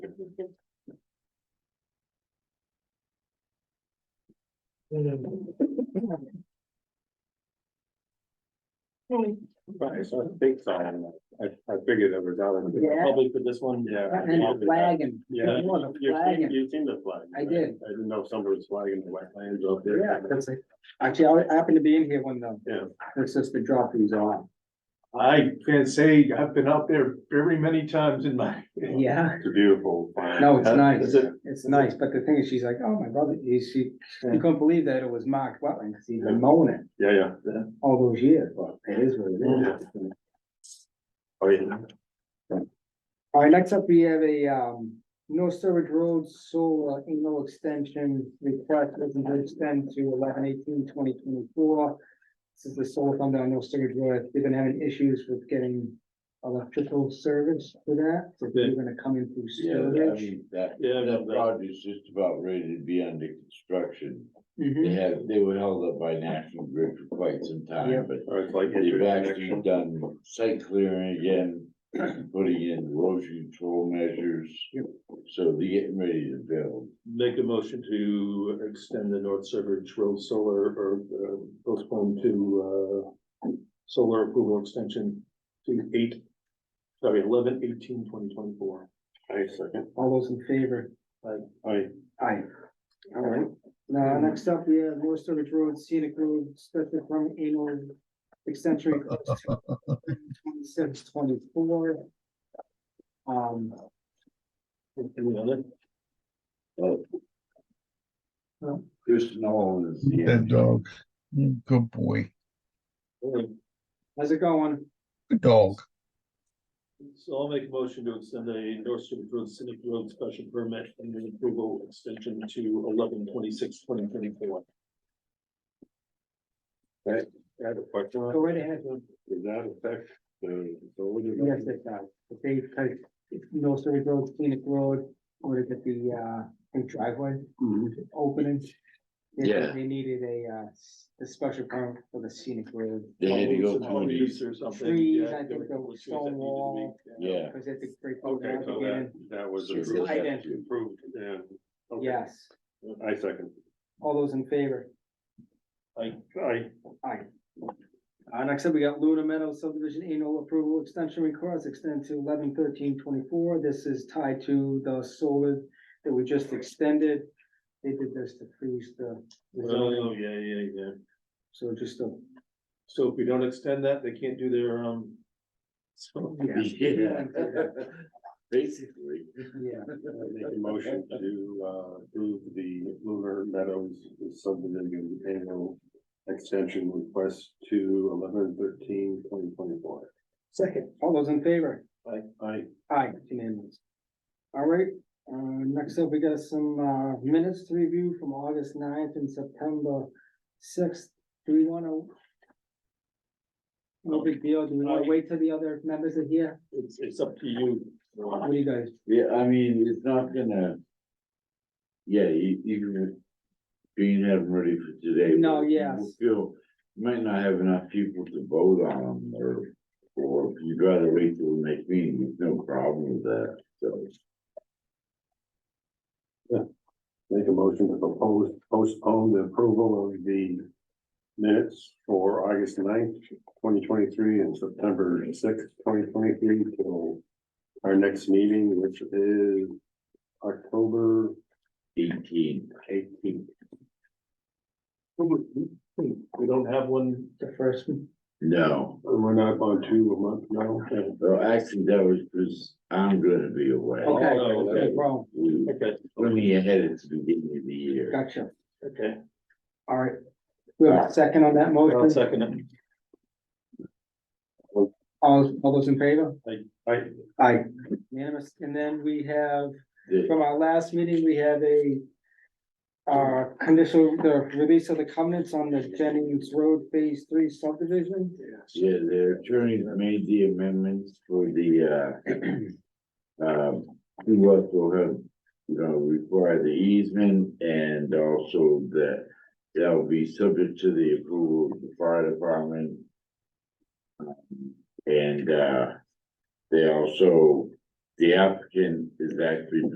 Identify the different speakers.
Speaker 1: Right, so I think so, I, I figured it was out of.
Speaker 2: Yeah.
Speaker 1: Probably for this one, yeah.
Speaker 2: And it's flagging.
Speaker 1: Yeah,
Speaker 2: It was a
Speaker 1: you've
Speaker 2: flagging.
Speaker 1: seen, you've seen the flag.
Speaker 2: I
Speaker 1: right?
Speaker 2: did.
Speaker 1: I didn't know if somebody was flagging the wetlands up there.
Speaker 2: Yeah, that's it. Actually, I happened to be in here when the,
Speaker 1: Yeah.
Speaker 2: the sister dropped these off.
Speaker 3: I can say I've been out there very many times in my.
Speaker 2: Yeah.
Speaker 1: It's a beautiful. flag.
Speaker 2: No, it's
Speaker 1: Uh,
Speaker 2: nice.
Speaker 1: is it-
Speaker 2: It's nice, but the thing is, she's like, oh, my brother, he- she, she couldn't believe that it was marked wetland, because he's been mowing it
Speaker 1: Yeah, yeah, yeah.
Speaker 2: all those years, but it is what it is.
Speaker 1: Oh, yeah.
Speaker 2: All right, next up, we have a, um, North Sturbridge Road solar angle extension request, this is to extend to eleven eighteen twenty twenty-four. This is the solar fund on North Sturbridge Road, they've been having issues with getting electrical service for that, so they're
Speaker 1: Okay.
Speaker 2: gonna come in through
Speaker 4: Yeah, I
Speaker 2: Sturbridge.
Speaker 4: mean, that,
Speaker 1: Yeah,
Speaker 4: that
Speaker 1: that-
Speaker 4: project's just about ready to be under construction.
Speaker 2: Mhm.
Speaker 4: They have, they were held up by National Grid for quite some
Speaker 2: Yeah.
Speaker 4: time, but
Speaker 1: Or Oh, it's like.
Speaker 4: they've actually done site clearing again, putting in erosion control measures. So they're getting ready to build.
Speaker 1: Make a motion to extend the North Suburbs Road Solar or uh, postpone to uh. Solar approval extension to eight, sorry, eleven eighteen twenty twenty four. I second.
Speaker 2: All those in favor?
Speaker 1: I,
Speaker 2: Aye. All right, now, Uh, next up, we have North Sturbridge Road, Scenic Road, special permit annual extension request twenty-six, twenty-four. Um,
Speaker 1: any other?
Speaker 4: Chris Nolan is the
Speaker 5: That dog. Mm, Good boy.
Speaker 2: how's it going?
Speaker 5: Good dog.
Speaker 1: So I'll make a motion to extend the North Suburbs Road Scenic Road special permit and an approval extension to eleven twenty six twenty twenty four. Right, I have a question.
Speaker 2: Go right ahead.
Speaker 1: Does that affect the?
Speaker 2: Yes, it does. The same type, North Sturbridge Road, Scenic Road, ordered at the, uh, big driveway opening. They-
Speaker 4: Yeah.
Speaker 2: They needed a, uh, s- a special permit for the Scenic Road.
Speaker 4: They had to go through these,
Speaker 1: Trees or something.
Speaker 2: Trees,
Speaker 1: yeah,
Speaker 2: I
Speaker 1: there
Speaker 2: think
Speaker 1: were a
Speaker 2: there
Speaker 1: couple
Speaker 2: was
Speaker 1: of trees that
Speaker 2: stone
Speaker 1: needed to be-
Speaker 2: wall.
Speaker 4: yeah.
Speaker 2: Because they had to break those
Speaker 1: Okay,
Speaker 2: out
Speaker 1: so
Speaker 2: again.
Speaker 1: that, that was
Speaker 4: Sure.
Speaker 1: approved,
Speaker 2: Tight end.
Speaker 1: approved, yeah. Okay.
Speaker 2: Yes,
Speaker 1: I second.
Speaker 2: all those in favor?
Speaker 1: I, I,
Speaker 2: Aye. Uh, next up, we got Luna Meadow subdivision annual approval extension request extend to eleven thirteen twenty-four. This is tied to the solar that we just extended. They did this to freeze the. the
Speaker 1: oh,
Speaker 2: zoning.
Speaker 1: yeah, yeah, yeah.
Speaker 2: So just a,
Speaker 1: So if we don't extend that, they can't do their, um. So
Speaker 2: yeah,
Speaker 4: Yeah. Basically.
Speaker 2: yeah,
Speaker 1: make a motion to, uh, approve the Lunar Meadows subdivision annual extension request to eleven thirteen twenty twenty four.
Speaker 2: second, all those in favor?
Speaker 1: I, I,
Speaker 2: Aye, it's unanimous. All right, uh, next up, we got some, uh, minutes to review from August 9th and September sixth. Do we wanna? No big deal. Do we
Speaker 1: Uh,
Speaker 2: wanna wait till the other members are here?
Speaker 1: it's, it's up to you.
Speaker 2: What do you guys?
Speaker 4: Yeah, I mean, it's not gonna. Yeah, e, you, you can. Being have them ready for today.
Speaker 2: No,
Speaker 4: but you
Speaker 2: yes.
Speaker 4: Feel, might not have enough people to vote on them or, or if you'd rather wait till the next meeting, there's no problem with that, so.
Speaker 1: Make a motion to propose, postpone the approval of the minutes for August 9th, twenty twenty-three and September sixth, twenty twenty-three till our next meeting, which is October
Speaker 4: Eighteen,
Speaker 1: eighteenth. We don't have one,
Speaker 2: The first, one?
Speaker 4: no,
Speaker 1: we're not on two a month now.
Speaker 4: well, actually, that was, because I'm gonna be away.
Speaker 2: Okay.
Speaker 1: Oh, no, okay.
Speaker 2: wrong,
Speaker 4: We,
Speaker 1: Okay,
Speaker 4: when we ahead at the beginning of the year.
Speaker 2: gotcha.
Speaker 1: okay.
Speaker 2: All right. We have a second on that
Speaker 1: I'll
Speaker 2: motion.
Speaker 1: second it.
Speaker 2: All, all those in favor?
Speaker 1: I,
Speaker 2: Aye. Unanimous. And then we have
Speaker 4: The-
Speaker 2: From our last meeting, we had a uh, conditional, the release of the covenants on the Jennings Road Phase Three subdivision.
Speaker 4: Yeah, the attorneys made the amendments for the, uh, um, who else will have, you know, require the easement and also that that'll be subject to the approval of the fire department. Um, And, uh, they also, the applicant is actually